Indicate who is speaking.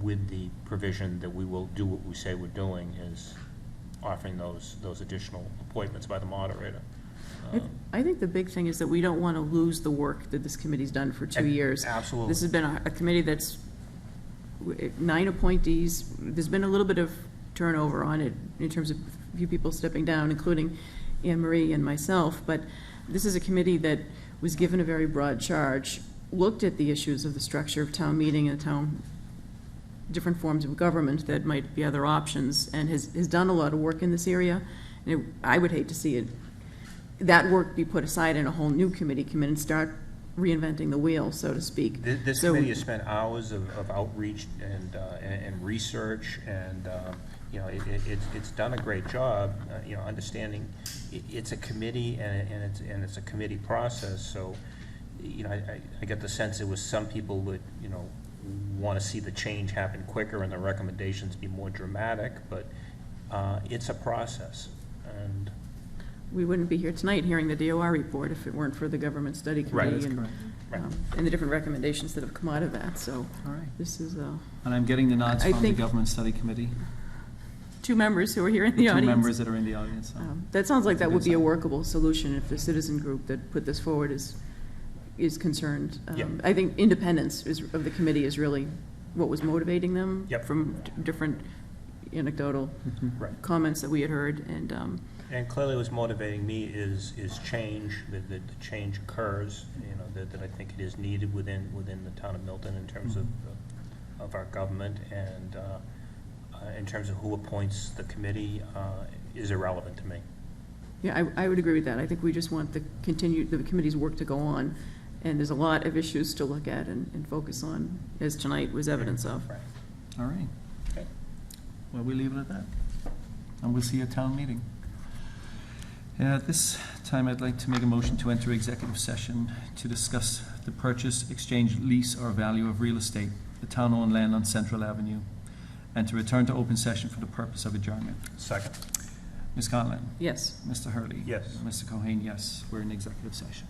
Speaker 1: with the provision that we will do what we say we're doing, is offering those, those additional appointments by the moderator. Um,
Speaker 2: I- I think the big thing is that we don't want to lose the work that this committee's done for two
Speaker 1: Ab-
Speaker 2: years.
Speaker 1: absolutely.
Speaker 2: This has been a a committee that's, w- nine appointees, there's been a little bit of turnover on it in terms of a few people stepping down, including Anne Marie and myself, but this is a committee that was given a very broad charge, looked at the issues of the structure of town meeting and town, different forms of government that might be other options, and has, has done a lot of work in this area. And it- I would hate to see it that work be put aside and a whole new committee come in and start reinventing the wheel, so to speak.
Speaker 1: Thi- This
Speaker 2: So-
Speaker 1: committee has spent hours of of outreach and, uh, and and research, and, um, you know, it, it- it's, it's done a great job, uh, you know, understanding, i- it's a committee, and it- and it's, and it's a committee process, so, you know, I, I- I get the sense it was some people would, you know, want to see the change happen quicker and the recommendations be more dramatic, but uh, it's a process, and,
Speaker 2: We wouldn't be here tonight hearing the DOR report if it weren't for the government study
Speaker 1: Right.
Speaker 2: committee and,
Speaker 3: That's
Speaker 1: correct.
Speaker 2: um, and the different recommendations that have come out of that, so
Speaker 3: All right.
Speaker 2: this is, uh,
Speaker 3: And I'm getting the nods
Speaker 2: I
Speaker 3: from the
Speaker 2: think-
Speaker 3: Government Study Committee,
Speaker 2: two members who are here in the
Speaker 3: the two
Speaker 2: audience.
Speaker 3: members that are in the audience. so.
Speaker 2: Um, That sounds like
Speaker 3: It's a
Speaker 2: that
Speaker 3: good
Speaker 2: would be a
Speaker 3: sign.
Speaker 2: workable solution if the citizen group that put this forward is, is concerned. Um,
Speaker 1: Yeah.
Speaker 2: I think independence is, of the committee is really what was motivating them.
Speaker 1: Yep.
Speaker 2: From d- different anecdotal
Speaker 1: right.
Speaker 2: comments that we had heard, and, um,
Speaker 1: And clearly what's motivating me is, is change, that, that the change occurs, you know, that, that I think it is needed within, within the town of Milton in terms of, of our government and, uh, uh, in terms of who appoints the committee, uh, is irrelevant to me.
Speaker 2: yeah, I, I would agree with that. I think we just want the continued, the committee's work to go on, and there's a lot of issues to look at and, and focus on, as tonight was evidence of.
Speaker 1: Right.
Speaker 3: All right.
Speaker 1: Okay.
Speaker 3: Well, we leave it at that. And we'll see you at town meeting. And at this time, I'd like to make a motion to enter executive session to discuss the purchase, exchange, lease, or value of real estate, the town-owned land on Central Avenue, and to return to open session for the purpose of adjournment.
Speaker 1: Second.
Speaker 3: Ms. Conlon?
Speaker 2: Yes.
Speaker 3: Mr. Hurley?
Speaker 1: Yes.
Speaker 3: Mr. Cohen, yes. We're in executive session.